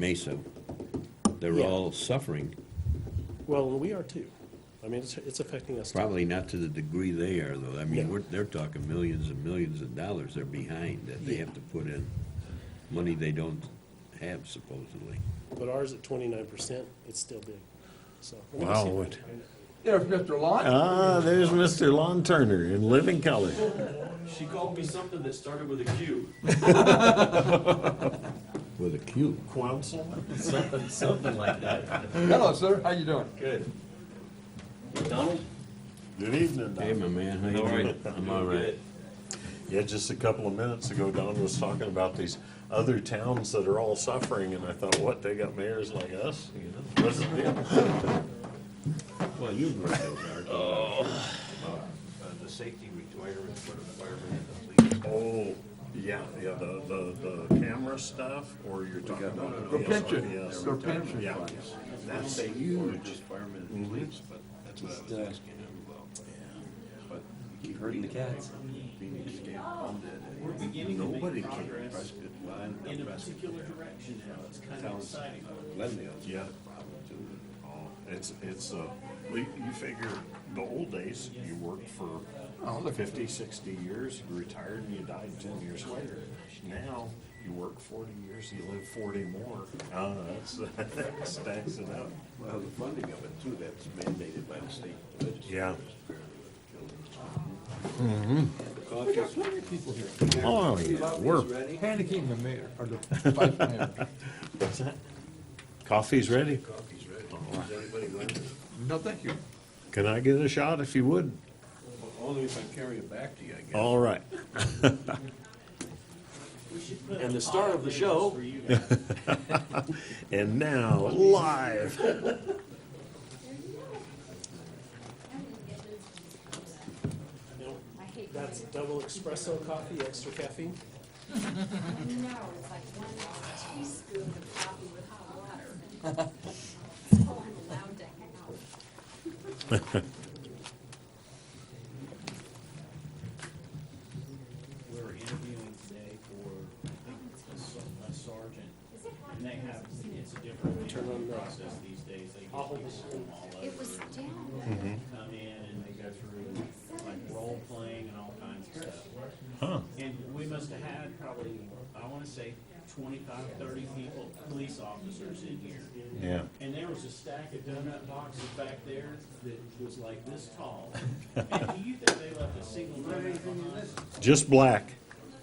Mesa. They're Yeah. all suffering, Well, and we are too. I mean, it's, it's affecting us too. probably not to the degree they are, though. I mean, Yeah. we're, they're talking millions and millions of dollars they're behind that they have to put in, money they don't have supposedly. But ours at twenty-nine percent, it's still big, so. let me Wow, see if I what- can find it. There's Mr. Lott. Ah, there's Mr. Lon Turner in living color. She called me something that started with a Q. With a Q. Council? Something, something like that. Hello, sir. How you doing? Good. Donald? Good evening, Hey, my man, how you All doing? right. I'm all right. Yeah, just a couple of minutes ago, Don was talking about these other towns that are all suffering, and I thought, what, they got mayors like us? You know, what's the deal? Well, you've read those articles. uh, the safety requirements for the firemen and the police. Oh, yeah, yeah, the, the, the camera stuff, or you're talking about the The pension, PSRPS? the pension Yeah, funds. That's Mm-hmm. They were just firemen and police, but that's what I uh, was asking him about. But Keep hurting the cats. Phoenix came funded, and nobody came, Prescott, Lyon, Prescott, towns, Glendale's Yeah. got a problem too. Oh, It's, it's, uh, you you figure, the old days, you worked for Oh, look. 50, 60 years, you retired and you died 10 years later. Now, you work 40 years, you live 40 more. Uh, that's, that stacks it up. Well, the funding of it too, that's mandated by the state legislature. Yeah. We got plenty of people here. Oh, yeah, we're- Coffee's ready. Panicking the mayor, or the vice mayor. What's that? Coffee's ready. Coffee's ready. Is anybody going? No, thank you. Can I get a shot if you would? Only if I carry it back to you, I guess. All right. And the star of the show. And now, live. No, I hate when That's double espresso coffee, extra caffeine. it's- No, it's like one teaspoon of coffee with hot water. So I'm allowed to hang out. we're interviewing today for a s- a sergeant, and they have, it's a different interview process these days. They get people from all It was over, down. Mm-hmm. come in and they go through like role playing and all kinds of stuff. Huh. And we must have had probably, I wanna say 25, 30 people, police officers in here. Yeah. And there was a stack of donut boxes back there that was like this tall. And do you think they left a single donut behind? Just black.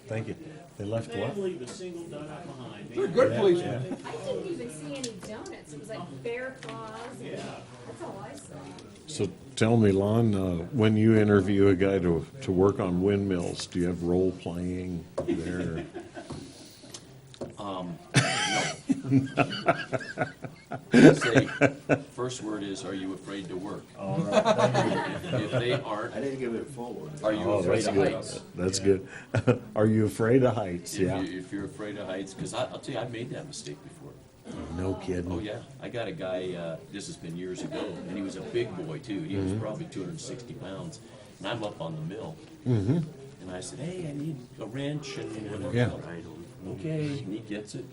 Thank you. They left They didn't what? leave a single donut behind. They're good policemen. I didn't even see any donuts. It was like bear claws. and- Yeah. That's all I saw. So tell me, Lon, uh, when you interview a guy to, to work on windmills, do you have role playing there? Say, first word is, are you afraid to work? If they I aren't, didn't give it forward. are you Oh, afraid that's of good. heights? That's good. Are you afraid of heights? If Yeah. you- If you're afraid of heights, because I'll tell you, I've made that mistake before. No Oh, kidding. yeah. I got a guy, uh, this has been years ago, and he was a big boy too. He Mm-hmm. was probably 260 pounds. And I'm up on the mill. Mm-hmm. And I said, hey, I need a wrench and whatever. Yeah. else." Okay. And he gets it.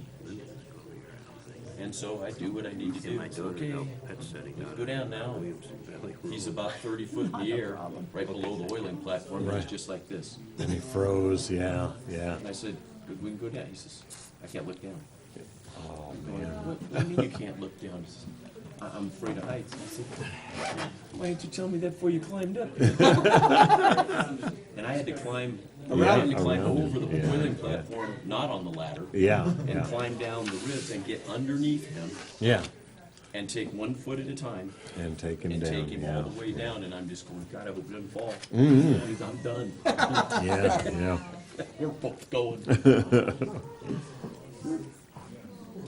And so I do what I need to do. My It's daughter okay. helped at setting Let's up go down now. Williamson Valley Rural. He's about 30 foot in the air, right below the oiling platform. He's just like this. And he froze. Yeah, yeah. And I said, "Good, we can go down. He says, I can't look down. Oh, man. What, what do you mean you can't look down? He says, "I- I'm afraid of heights. I said, why didn't you tell me that before you climbed up? And I had to climb, I had to climb Around it, over the yeah, boiling yeah. platform, not on the ladder. Yeah, And yeah. climb down the ribs and get underneath him Yeah. and take one foot at a time And take him and down. take him all Yeah, Mm-hmm. the way down. And I'm just going, God, I hope it doesn't fall. I'm done. yeah, yeah. We're both going.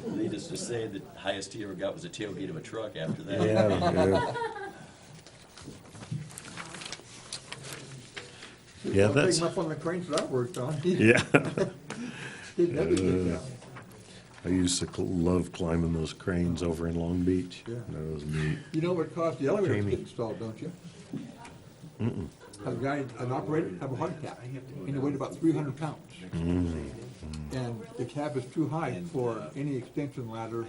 Needless to say, the highest he ever got was a tailgate of a truck after that. Yeah, yeah. Yeah, I'll take that's, him up on the cranes that I worked on. He yeah. didn't ever get down. I used to cl- love climbing those cranes over in Long Beach. Yeah. That was neat. You know what caused the elevator to Jamie. get installed, don't you? A guy, an operator, have a heart attack, and he weighed about three hundred pounds. And the cap is too high And, for uh, Mm. any extension ladder